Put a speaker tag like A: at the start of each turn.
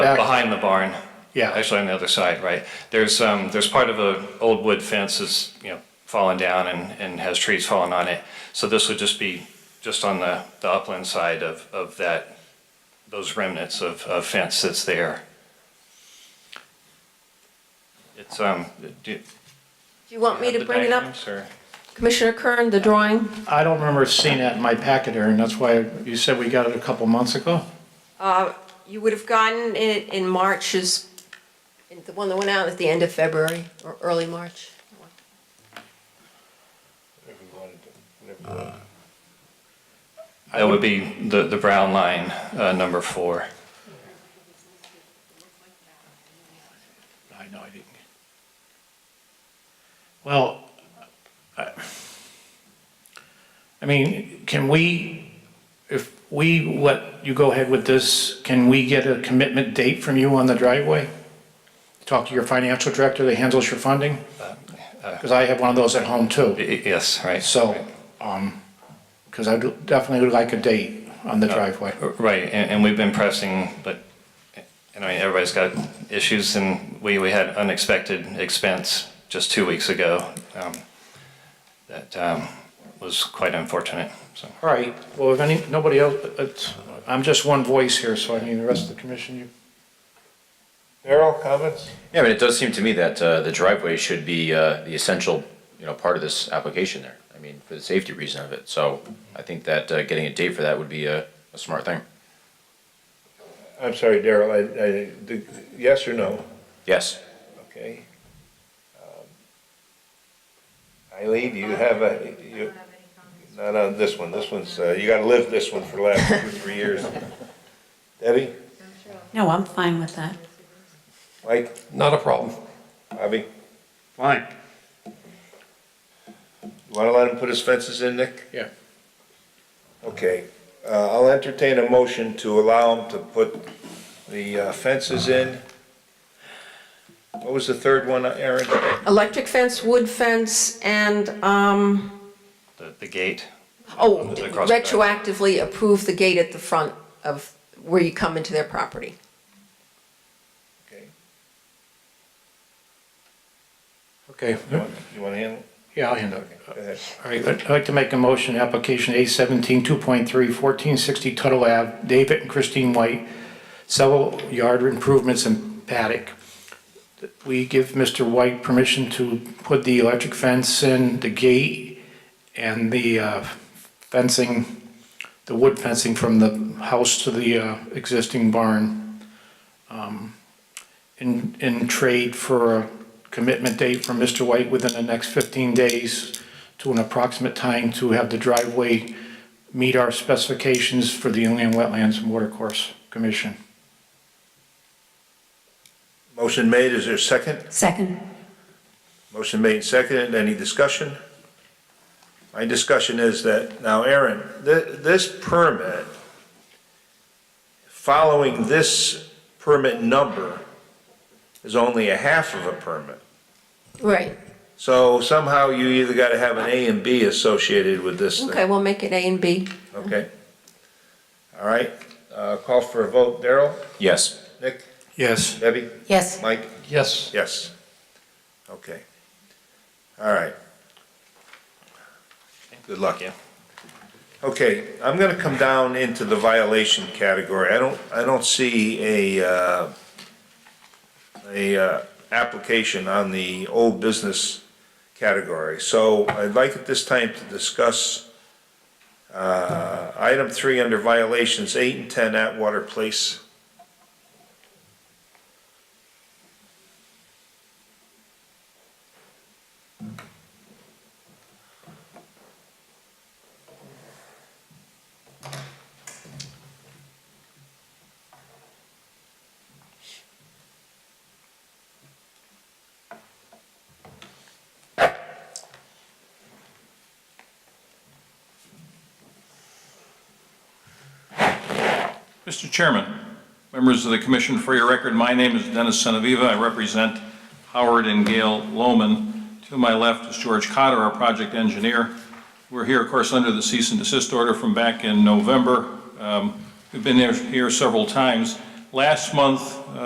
A: Back-
B: But behind the barn.
A: Yeah.
B: Actually, on the other side, right? There's, um, there's part of a old wood fence that's, you know, fallen down and, and has trees falling on it. So this would just be, just on the, the upland side of, of that, those remnants of, of fence that's there. It's, um, do. do
C: Do you want me
B: you have
C: to
B: the
C: bring it up,
B: diagrams, or-
C: Commissioner Kern, the drawing?
A: I don't remember seeing that in my packet, Aaron, that's why you said we got it a couple months ago?
C: Uh, You would have gotten it in March's, in the one that went out at the end of February or early March.
B: That would be the, the brown line, uh, number four.
A: I know I didn't. Well, I, I mean, can we, if we let you go ahead with this, can we get a commitment date from you on the driveway? Talk to your financial director that handles your funding? Because I have one of those at home
B: Y-
A: too.
B: y- Yes, right.
A: So, um, because I do- definitely would like a date on the driveway.
B: Right, and, and we've been pressing, but, and I mean, everybody's got issues, and we, we had unexpected expense just two weeks ago. um, That, um, was quite unfortunate, so.
A: All right, well, if any, nobody else, it's- I'm just one voice here, so I mean, the rest of the commission, you
D: Daryl, comments?
E: Yeah, but it does seem to me that uh, the driveway should be uh, the essential, you know, part of this application there. I mean, for the safety reason of it. So I think that uh, getting a date for that would be a, a smart thing.
D: I'm sorry, Daryl, I, I, the- yes or no?
E: Yes.
D: Okay. Um, Eileen, do you have a, you, not on this one, this one's, uh, you gotta live this one for the last two, three years. Debbie,
F: No, I'm fine with that.
D: Mike,
G: Not a problem.
D: Bobby,
H: Fine.
D: you wanna let him put his fences in, Nick?
A: Yeah.
D: Okay, uh, I'll entertain a motion to allow him to put the uh, fences in. What was the third one, Aaron?
C: Electric fence, wood fence, and, um,
B: The, the gate,
C: oh,
B: Across the back.
C: retroactively approve the gate at the front of where you come into their property.
D: Okay,
A: Okay,
D: You want you wanna handle?
A: yeah, I'll handle it.
D: it? Go ahead.
A: All right, I'd like to make a motion, application A seventeen, two point three, fourteen sixty Tuttle Ave, David and Christine White, several yard improvements in paddock. We give Mr. White permission to put the electric fence in, the gate, and the uh, fencing, the wood fencing from the house to the uh, existing barn. um, In, in trade for a commitment date from Mr. White within the next fifteen days to an approximate time to have the driveway meet our specifications for the Inland Wetlands and Watercourse Commission.
D: Motion made, is there a second?
F: Second.
D: Motion made, seconded, any discussion? My discussion is that, now Aaron, th- this permit, following this permit number is only a half of a permit.
C: Right.
D: So somehow you either gotta have an A and B associated with this
C: Okay,
D: thing,
C: we'll make it A and B.
D: okay? All right, uh, call for a vote, Daryl,
E: Yes.
D: Nick,
A: Yes.
D: Debbie,
C: Yes.
D: Mike?
G: Yes.
D: Yes. Okay. All right. Good luck.
B: Yeah.
D: Okay, I'm gonna come down into the violation category. I don't, I don't see a, uh, a, uh, application on the old business category. So I'd like at this time to discuss, uh, item three under violations, eight and ten Atwater Place.
I: Mr. Chairman, members of the commission, for your record, my name is Dennis Senaviva. I represent Howard and Gail Lohman. To my left is George Cotter, our project engineer. We're here, of course, under the cease and desist order from back in November. Um, We've been there- here several times. last month,